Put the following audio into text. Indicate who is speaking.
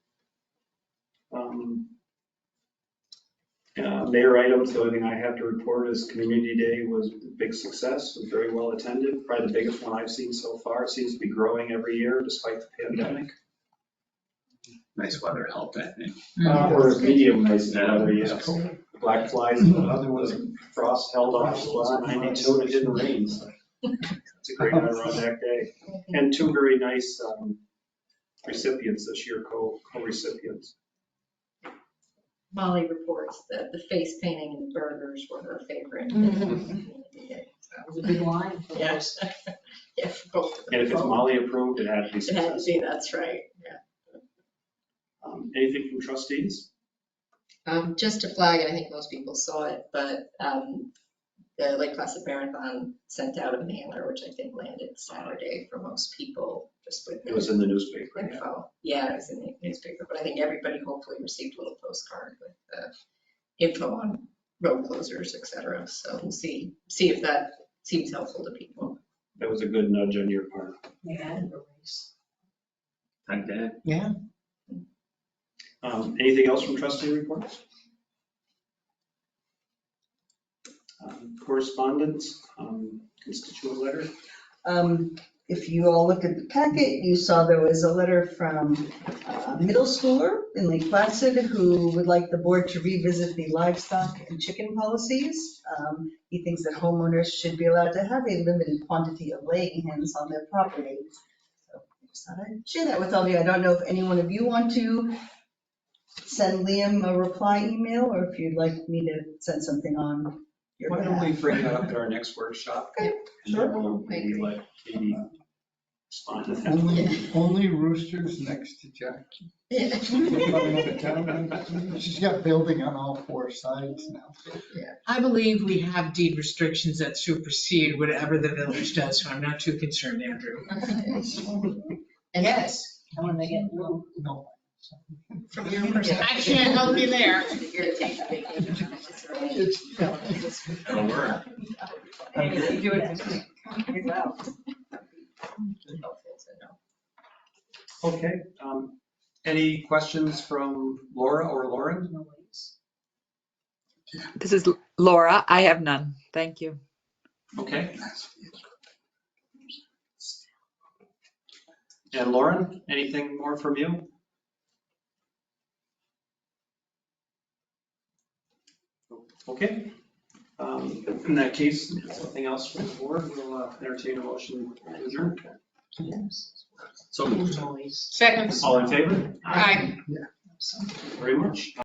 Speaker 1: Um, uh, Mayor items, the only thing I have to report is Community Day was a big success, was very well attended, probably the biggest one I've seen so far. It Seems to be growing every year despite the pandemic.
Speaker 2: Nice weather helped, I think.
Speaker 1: Uh, Or medium nice weather,
Speaker 2: Yeah.
Speaker 1: yes. Black flies, and other ones, frost held off, it was 92 and it didn't rain. so It's a great Adirondack day. And two very nice um, recipients this year, co- co-recipients.
Speaker 3: Molly reports that the face painting and the burgers were her favorite. Mm-hmm.
Speaker 4: That was a big line.
Speaker 3: Yes. Yeah, for both of them.
Speaker 1: And if it's Molly approved, it had to be
Speaker 3: It had to
Speaker 1: successful.
Speaker 3: be, that's right, yeah.
Speaker 1: Um, Anything from trustees?
Speaker 3: Um, just to flag, and I think most people saw it, but, um, the Lake Placid Marathon sent out a mailer, which I think landed Saturday for most people, just with.
Speaker 1: It was in the newspaper. yeah.
Speaker 3: info. Yeah, it was in the newspaper, but I think everybody hopefully received a little postcard with the info on road closures, et cetera. So we'll see, see if that seems helpful to people.
Speaker 1: That was a good nudge on your part.
Speaker 2: I did.
Speaker 1: Um, Anything else from trustee reports? Um, Correspondence, um, constituent letter?
Speaker 5: Um, If you all looked at the packet, you saw there was a letter from a middle schooler in Lake Placid who would like the board to revisit the livestock and chicken policies. Um, He thinks that homeowners should be allowed to have a limited quantity of laying hens on their property. So I just thought I'd share that with all of you. I don't know if any one of you want to send Liam a reply email or if you'd like me to send something on your
Speaker 2: Why
Speaker 5: behalf.
Speaker 2: don't we bring that up at our next workshop?
Speaker 5: Okay,
Speaker 1: And
Speaker 5: sure.
Speaker 1: then we'll
Speaker 3: I agree.
Speaker 1: let Katie respond to that.
Speaker 6: Only, only roosters next to Jack. We're coming up to town. She's got building on all four sides now.
Speaker 4: I believe we have deed restrictions that supersede whatever the village does, so I'm not too concerned, Andrew.
Speaker 3: And
Speaker 4: Yes.
Speaker 7: I want to make it a little
Speaker 6: No.
Speaker 3: from your perspective.
Speaker 4: I can't help you there.
Speaker 3: You're taking vacation. It's all right.
Speaker 6: It's, you know,
Speaker 2: It'll work.
Speaker 7: You do it this week. Wow.
Speaker 3: Helpful to know.
Speaker 1: Okay. um, Any questions from Laura or Lauren?
Speaker 8: This is Laura. I have none. Thank you.
Speaker 1: Okay. And Lauren, anything more from you? Okay. Um, In that case, something else from the board, we'll uh, entertain a motion to adjourn. So,
Speaker 4: Second.
Speaker 1: all in favor?
Speaker 4: Aye.
Speaker 1: Very much.